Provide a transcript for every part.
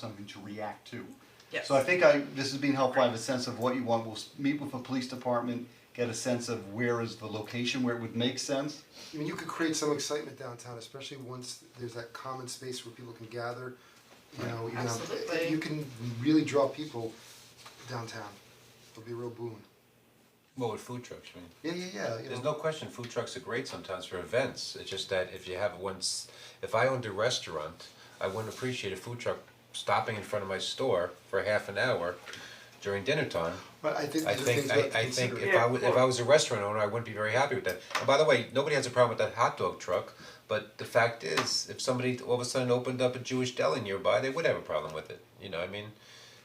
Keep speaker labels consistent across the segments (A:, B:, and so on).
A: something to react to.
B: Yes.
A: So I think I, this has been helpful, I have a sense of what you want, we'll s- meet with the police department, get a sense of where is the location, where it would make sense.
C: I mean, you could create some excitement downtown, especially once there's that common space where people can gather, you know, you know,
B: Absolutely.
C: you can really draw people downtown. It'll be a real boon.
D: Well, with food trucks, I mean,
C: Yeah, yeah, yeah, you
D: there's
C: know.
D: no question, food trucks are great sometimes for events, it's just that if you have once, if I owned a restaurant, I wouldn't appreciate a food truck stopping in front of my store for half an hour during dinner time.
C: But I think
D: I
C: these are things
D: think,
C: we have
D: I
C: to
D: I think
C: consider.
D: if I was, if I was a restaurant owner, I wouldn't be very happy with that. And by the way, nobody has a problem with that hot dog truck, but the fact is, if somebody all of a sudden opened up a Jewish deli nearby, they would have a problem with it, you know, I mean,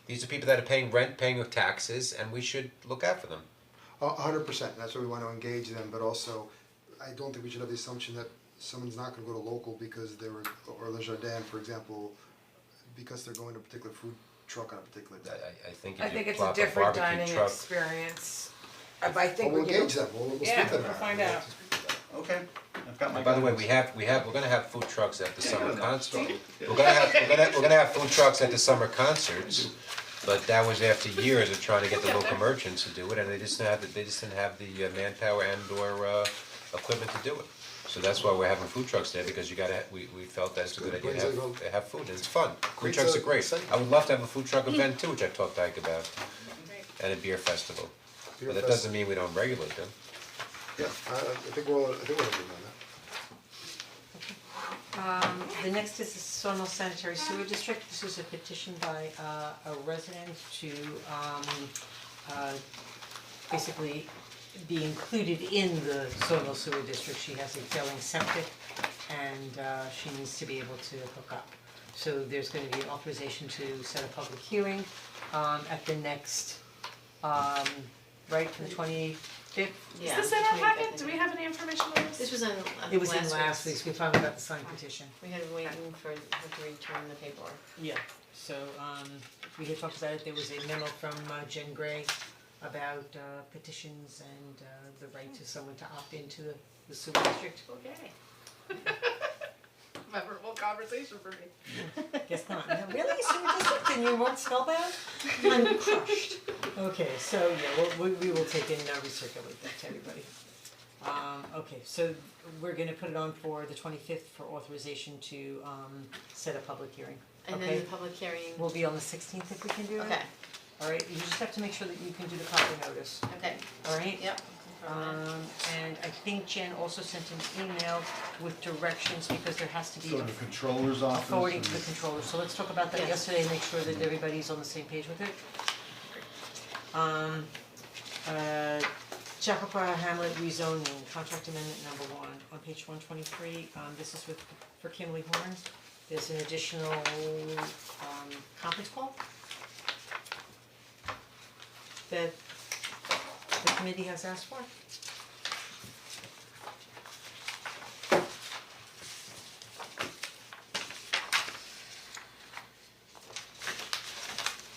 D: these are people that are paying rent, paying taxes, and we should look out for them.
C: A a hundred percent, that's why we wanna engage them, but also, I don't think we should have the assumption that someone's not gonna go to local because they were, or Le Jardin, for example, because they're going to a particular food truck on a particular
D: I-
C: day.
D: I, I think
B: I
D: if
B: think
D: you
B: it's a
D: plop a
B: different
D: barbecue
B: dining
D: truck,
B: experience. I- I
C: But
B: think we
C: we'll
B: can.
C: engage them, we'll, we'll speak
B: Yeah,
C: to them.
B: we'll
C: about it.
B: find
C: We'll
B: out.
C: speak to them.
A: Okay, I've got my.
D: and by the way,
A: guidance.
D: we have, we have, we're gonna have food trucks at the summer
A: no.
D: concert. We're gonna have, we're gonna, we're gonna have food trucks at the summer concerts, but that was after years of trying to get the local merchants to do it, and they just didn't have, the- they just didn't have the uh, manpower and or uh, equipment to do it. So that's why we're having food trucks there, because you gotta, ha- we, we felt that's a good idea to
C: Brings
D: have,
C: everyone-
D: to have food, and it's fun. Food
C: Brings
D: trucks are
C: out
D: great.
C: excitement.
D: I would love to have a food truck event too, which I talked to Ike about, and a beer festival.
C: Beer
D: But that
C: fest-
D: doesn't mean we don't regulate them.
C: Yeah, I I think we're, all- I think we're agreeing on that.
E: The next is the Sono Sanitary Sewer District, this is a petition by uh, a resident to um uh basically be included in the Sono Sewer District, she has a failing septic and uh she needs to be able to hook up. So there's gonna be an authorization to set a public hearing um at the next um, right, for the twenty fifth?
F: Yeah.
G: Does that not happen? Do we have any information on this?
F: This was in, uh, last
E: It was in last
F: week's.
E: week's, we finally got the signed petition.
F: We had been waiting for her to return the paperwork.
E: Yeah, so um we had talked about it, there was a memo from uh, Jen Gray about uh petitions and uh the right to someone to opt into the the sewer district.
G: Okay. Memorable conversation for me.
E: Guess not, No, really, sewer district, and you weren't spellbound? I'm crushed. Okay, so yeah, we'll we we will take in, uh recirculate that to everybody. Um okay, so we're gonna put it on for the twenty fifth for authorization to um set a public hearing,
F: And then
E: okay?
F: the public hearing,
E: We'll be on the sixteenth if we can do it.
F: okay,
E: Alright, you just have to make sure that you can do the proper notice,
F: okay,
E: alright?
F: yep. confirm
E: Um and I think Jen also sent an email with directions because there has to be
A: Go to the controller's
E: a
A: office
E: forwarding
A: and-
E: to the controller, so let's talk about that
F: Yes.
E: yesterday and make sure that everybody's on the same page with it. Um uh Jacopah Hamlet rezoning, contract amendment number one, on page one twenty-three, um this is with, for Kimley Horn. There's an additional um conference call that the committee has asked for.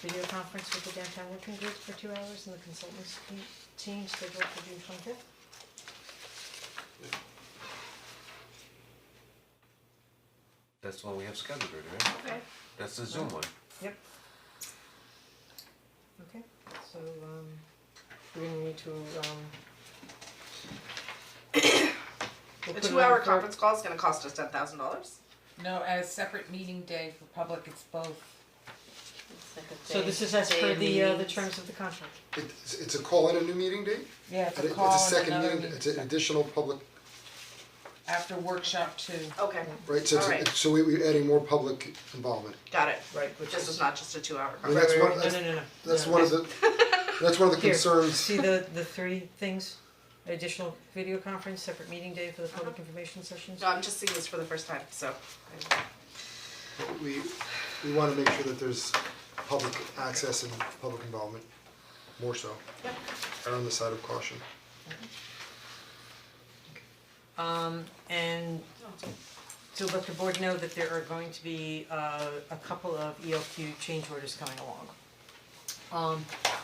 E: Video conference with the downtown working group for two hours and the consultants team scheduled for June twenty-fifth.
D: That's the one we have scheduled, right?
G: Okay.
D: That's the Zoom one.
E: Yep. Okay, so um we're gonna need to um we'll
G: The
E: put it on
G: two-hour
E: for-
G: conference call is gonna cost us ten thousand dollars.
H: No, as separate meeting day for public, it's both.
F: that. It's like a
E: So
F: day-
E: this is as
F: day
E: per
F: of
E: the uh the
F: meetings.
E: terms of the contract.
C: It's it's a call and a new meeting date?
H: Yeah, it's
C: It-
H: a call
C: It's a
H: and
C: second
H: another
C: meeting, it's an additional public,
H: after workshop two.
G: Okay,
C: right, so it's-
G: Alright.
C: so we we're adding more public involvement.
G: got it.
E: Right, which
G: This is not just a two-hour
C: I mean,
G: conference.
C: that's
E: Right, right,
C: one,
E: right.
C: that's
E: no, no, no, no.
C: that's
E: No.
C: one of the, that's one of the
E: Here,
C: concerns,
E: see the the three things? Additional video conference, separate meeting day for the public
G: Uh-huh.
E: information sessions.
G: No, I'm just seeing this for the first time, so.
C: we we wanna make sure that there's public access and public involvement, more so.
G: Yep.
C: Err on the side of caution.
E: Um and to let the board know that there are going to be uh a couple of ELQ change orders coming along. Um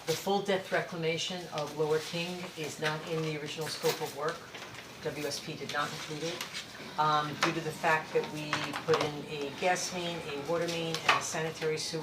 E: the full depth reclamation of Lower King is not in the original scope of work. WSP did not include it. Um due to the fact that we put in a gas main, a water main, and a sanitary sewer